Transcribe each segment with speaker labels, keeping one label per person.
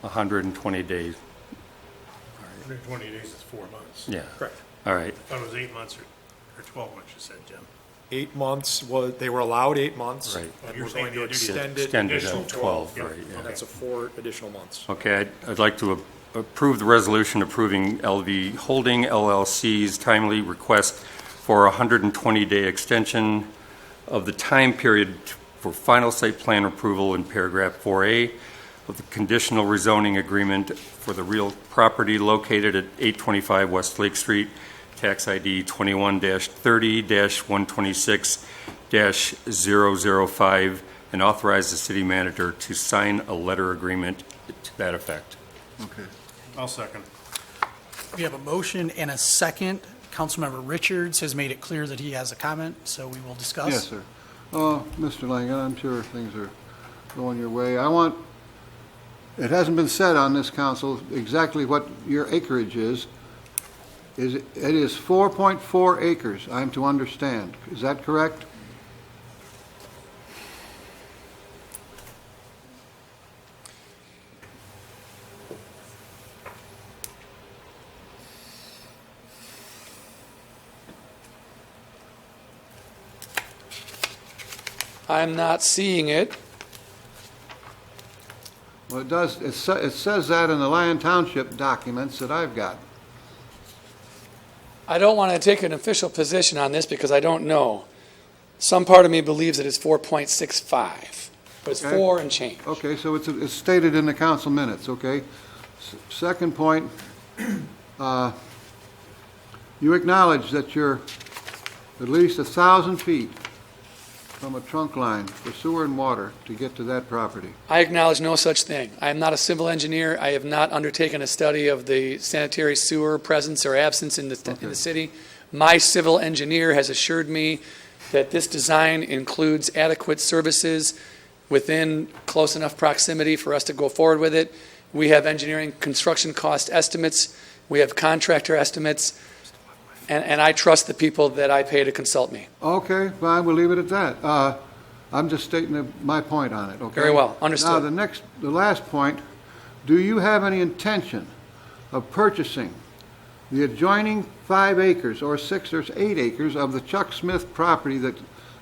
Speaker 1: 120 days,
Speaker 2: 120 days is four months.
Speaker 1: yeah.
Speaker 3: Correct.
Speaker 1: All right,
Speaker 2: I thought it was eight months or, or 12 months, you said, Jim.
Speaker 3: Eight months was, they were allowed eight months.
Speaker 1: Right.
Speaker 3: And
Speaker 2: You're
Speaker 3: we're
Speaker 2: saying
Speaker 3: going to
Speaker 2: the additional-
Speaker 3: extend it.
Speaker 1: Extend it
Speaker 3: additional
Speaker 2: at
Speaker 1: 12,
Speaker 3: Yep.
Speaker 1: right, yeah.
Speaker 3: And that's a four additional months.
Speaker 1: okay, I'd- I'd like to a- approve the resolution approving LV Holding LLC's timely request for a 120-day extension of the time period for final site plan approval in paragraph 4A of the conditional rezoning agreement for the real property located at 825 West Lake Street, tax ID 21-30-126-005, and authorize the city manager to sign a letter agreement to that effect.
Speaker 4: Okay.
Speaker 2: I'll second.
Speaker 5: We have a motion and a second. Councilmember Richards has made it clear that he has a comment, so we will discuss.
Speaker 4: Yes, sir. Uh, Mr. Langen, I'm sure things are going your way. I want, it hasn't been said on this council exactly what your acreage is. Is, it it is 4.4 acres, I'm to understand. Is that correct?
Speaker 6: I'm not seeing it.
Speaker 4: Well, it does, it sa- it says that in the Lyon Township documents that I've got.
Speaker 6: I don't want to take an official position on this because I don't know. Some part of me believes that it's 4.65, but it's
Speaker 4: Okay.
Speaker 6: four and change.
Speaker 4: Okay, so it's, it's stated in the council minutes, okay? S- Second point, uh, you acknowledge that you're at least a thousand feet from a trunk line for sewer and water to get to that property.
Speaker 6: I acknowledge no such thing. I am not a civil engineer. I have not undertaken a study of the sanitary sewer presence or absence in the, in
Speaker 4: Okay.
Speaker 6: the city. My civil engineer has assured me that this design includes adequate services within close enough proximity for us to go forward with it. We have engineering construction cost estimates. We have contractor estimates. And, and I trust the people that I pay to consult me.
Speaker 4: Okay, fine, we'll leave it at that. Uh, I'm just stating the- my point on it, okay?
Speaker 6: Very well,
Speaker 4: Now,
Speaker 6: understood.
Speaker 4: the next, the last point, do you have any intention of purchasing the adjoining five acres, or six, or eight acres of the Chuck Smith property that,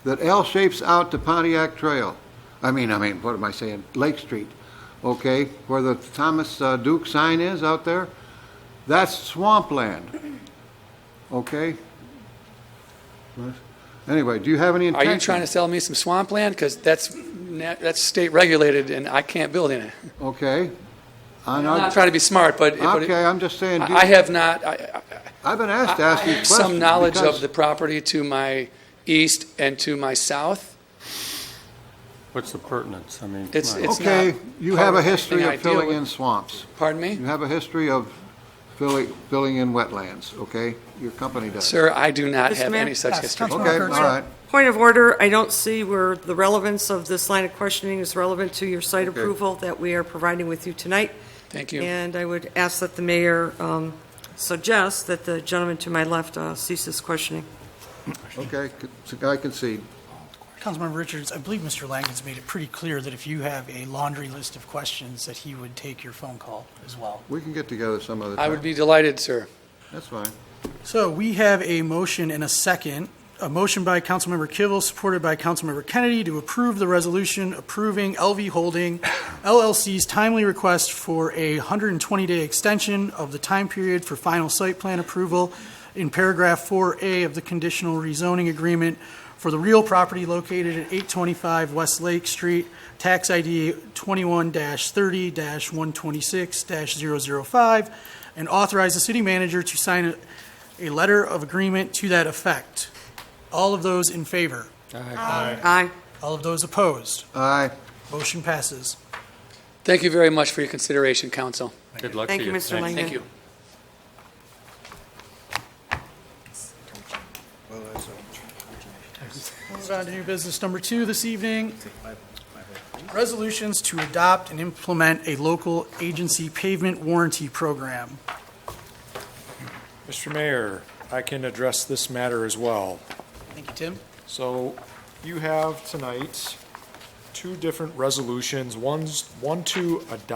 Speaker 4: that L shapes out to Pontiac Trail? I mean, I mean, what am I saying, Lake Street, okay, where the Thomas uh, Duke sign is out there? That's swampland, okay? Anyway, do you have any
Speaker 6: Are
Speaker 4: intention?
Speaker 6: you trying to sell me some swampland? Because that's, na- that's state regulated and I can't build in it.
Speaker 4: Okay.
Speaker 6: I'm not trying to be smart, but. but it-
Speaker 4: Okay, I'm just saying, do you-
Speaker 6: I I have not, I, I-
Speaker 4: I've been
Speaker 6: I
Speaker 4: asked to
Speaker 6: I
Speaker 4: ask you
Speaker 6: have
Speaker 4: questions.
Speaker 6: some knowledge of
Speaker 4: because-
Speaker 6: the property to my east and to my south.
Speaker 1: What's the pertinence? I mean, come
Speaker 6: It's-
Speaker 1: on.
Speaker 6: it's-
Speaker 4: Okay,
Speaker 6: not
Speaker 4: you
Speaker 6: part
Speaker 4: have
Speaker 6: of
Speaker 4: a
Speaker 6: anything
Speaker 4: history
Speaker 6: I
Speaker 4: of
Speaker 6: deal
Speaker 4: filling
Speaker 6: with.
Speaker 4: in swamps.
Speaker 6: Pardon me?
Speaker 4: You have a history of filling, filling in wetlands, okay? Your company does.
Speaker 6: Sir, I do not
Speaker 7: Mr.
Speaker 6: have
Speaker 7: Mayor?
Speaker 6: any such
Speaker 5: Yes,
Speaker 6: history.
Speaker 5: Councilmember
Speaker 4: Okay, all
Speaker 5: Kurtz.
Speaker 4: right.
Speaker 7: Point of order, I don't see where the relevance of this line of questioning is relevant to your site
Speaker 4: Okay.
Speaker 7: approval that we are providing with you tonight.
Speaker 6: Thank you.
Speaker 7: And I would ask that the mayor um, suggest that the gentleman to my left uh, cease his questioning.
Speaker 4: Okay, c- so I concede.
Speaker 5: Councilmember Richards, I believe Mr. Langen's made it pretty clear that if you have a laundry list of questions, that he would take your phone call as well.
Speaker 4: We can get together some other time.
Speaker 6: I would be delighted, sir.
Speaker 4: That's fine.
Speaker 5: So we have a motion and a second. A motion by Councilmember Kivel, supported by Councilmember Kennedy, to approve the resolution approving LV Holding LLC's timely request for a 120-day extension of the time period for final site plan approval in paragraph 4A of the conditional rezoning agreement for the real property located at 825 West Lake Street, tax ID 21-30-126-005, and authorize the city manager to sign a a letter of agreement to that effect. All of those in favor?
Speaker 7: Aye.
Speaker 5: All of those opposed?
Speaker 4: Aye.
Speaker 5: Motion passes.
Speaker 6: Thank you very much for your consideration, council.
Speaker 1: Good luck to
Speaker 7: Thank
Speaker 1: you.
Speaker 7: you, Mr.
Speaker 1: Thanks.
Speaker 7: Langen.
Speaker 6: Thank you.
Speaker 5: Move on to new business number two this evening. Resolutions to adopt and implement a local agency pavement warranty program.
Speaker 3: Mr. Mayor, I can address this matter as well.
Speaker 5: Thank you, Tim.
Speaker 3: So you have tonight two different resolutions. One's, one to adopt